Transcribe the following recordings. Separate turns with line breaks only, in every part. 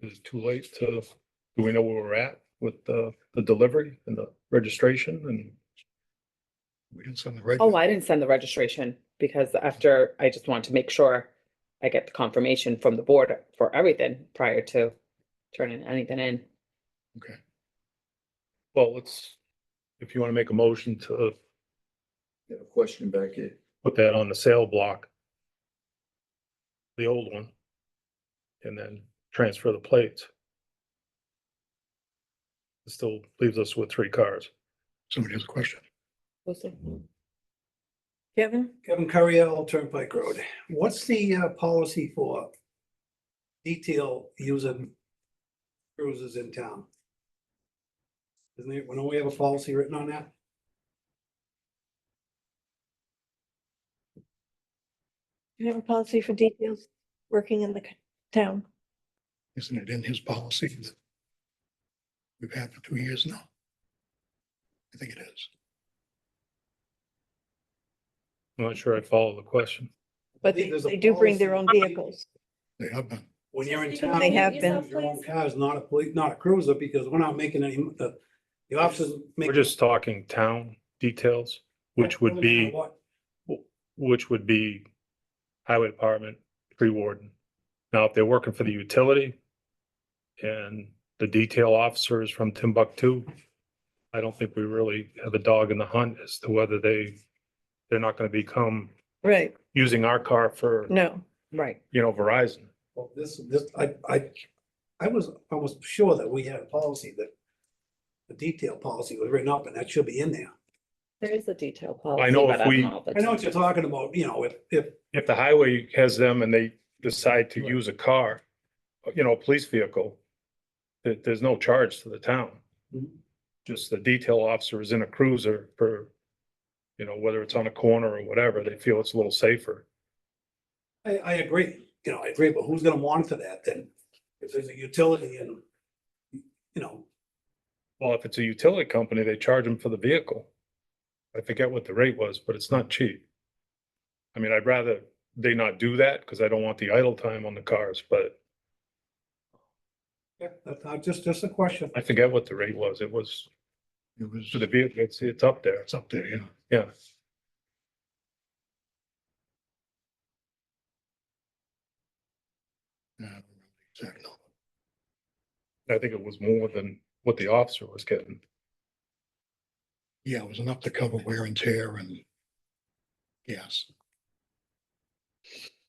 Is it too late to, do we know where we're at with the, the delivery and the registration and?
We didn't send the right.
Oh, I didn't send the registration because after, I just wanted to make sure I get the confirmation from the board for everything prior to turning anything in.
Okay.
Well, let's, if you want to make a motion to
I have a question back here.
put that on the sale block. The old one. And then transfer the plates. It Still leaves us with three cars.
Somebody has a question.
Kevin?
Kevin Curriell, Turnpike Road. What's the uh, policy for detail using cruisers in town? Isn't it, don't we have a policy written on that?
Do you have a policy for details working in the c- town?
Isn't it in his policy? that We've had for two years now. I think it is.
I'm not sure I follow the question.
But
think
they
there's a
they do bring their own
policy.
vehicles.
They have been.
When you're in
Speak up.
town.
They have
you
been.
use Your own car is not a police, not a cruiser because we're not making any, the, the officers. make-
We're just talking town details, which would be,
What-
which would be highway department, tree warden. Now, if they're working for the utility and the detail officer is from Timbuktu, I don't think we really have a dog in the hunt as to whether they, they're not going to become
Right,
using our car for,
no.
Right.
you know, Verizon.
Well, this, this, I, I, I was almost sure that we had a policy that the detail policy was written up and that should be in there.
There is a detail policy.
I know
but
if
don't
we-
know if
I know what
it's-
you're talking about, you know, if, if
If the highway has them and they decide to use a car, you know, a police vehicle, there, there's no charge to the town.
Mhm.
Just the detail officer is in a cruiser for, you know, whether it's on a corner or whatever, they feel it's a little safer.
I, I agree, you know, I agree, but who's gonna monitor that then? If there's a utility and, you know,
Well, if it's a utility company, they charge them for the vehicle. I forget what the rate was, but it's not cheap. I mean, I'd rather they not do that because I don't want the idle time on the cars, but
yeah, that's not- just, just a question.
I forget what the rate was. It was
It was,
for the vehicle, it's, it's up there.
it's up there, yeah.
Yeah.
Yeah, I don't remember the exact number.
I think it was more than what the officer was getting.
Yeah, it was enough to cover wear and tear and gas.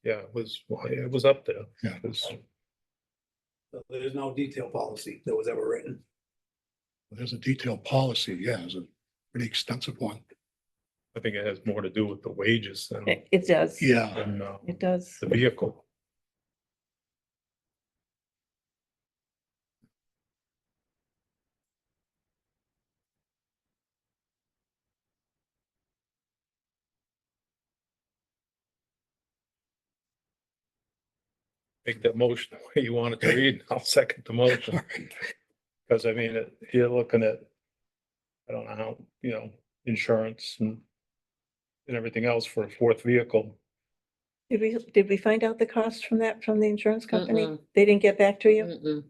Yeah, it was, well, yeah, it was up there.
Yeah.
It was-
There's no detail policy that was ever written.
There's a detailed policy, yeah, it's a pretty extensive one.
I think it has more to do with the wages than,
It it does.
Yeah,
than uh,
It does.
the vehicle. Make that motion the way you want it to read. I'll second the
all
motion.
right.
Because I mean, it- you're looking at, I don't know how, you know, insurance and and everything else for a fourth vehicle.
Did we, did we find out the cost from that, from the insurance company?
Mm-mm.
They didn't get back to you?
Mm-mm.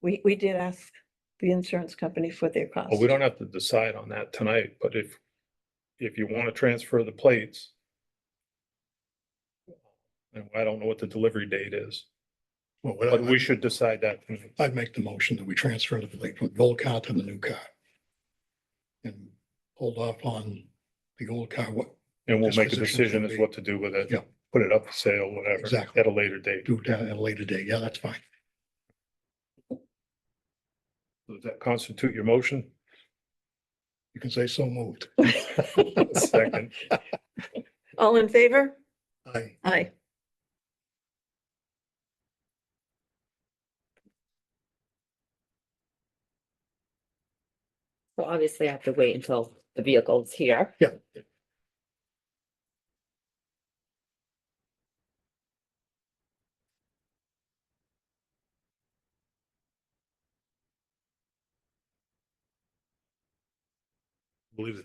We, we did ask the insurance company for their cost.
Well, Oh, we don't have to decide on that tonight, but if, if you want to transfer the plates, and I don't know what the delivery date is,
Well,
but
what
we
I-
should decide that. tonight.
I'd make the motion that we transfer the fleet from the old car to the new car. And hold off on the old car, what,
And we'll
This
make a
position
decision
should
as
be-
what to do with it.
Yeah.
Put it up for sale, whatever,
Exactly.
at a later date.
do that at a later date, yeah, that's fine.
Does that constitute your motion?
You can say so moved.
Second,
All in favor?
I,
Aye.
So obviously I have to wait until the vehicle's here.
Yeah.
believe it.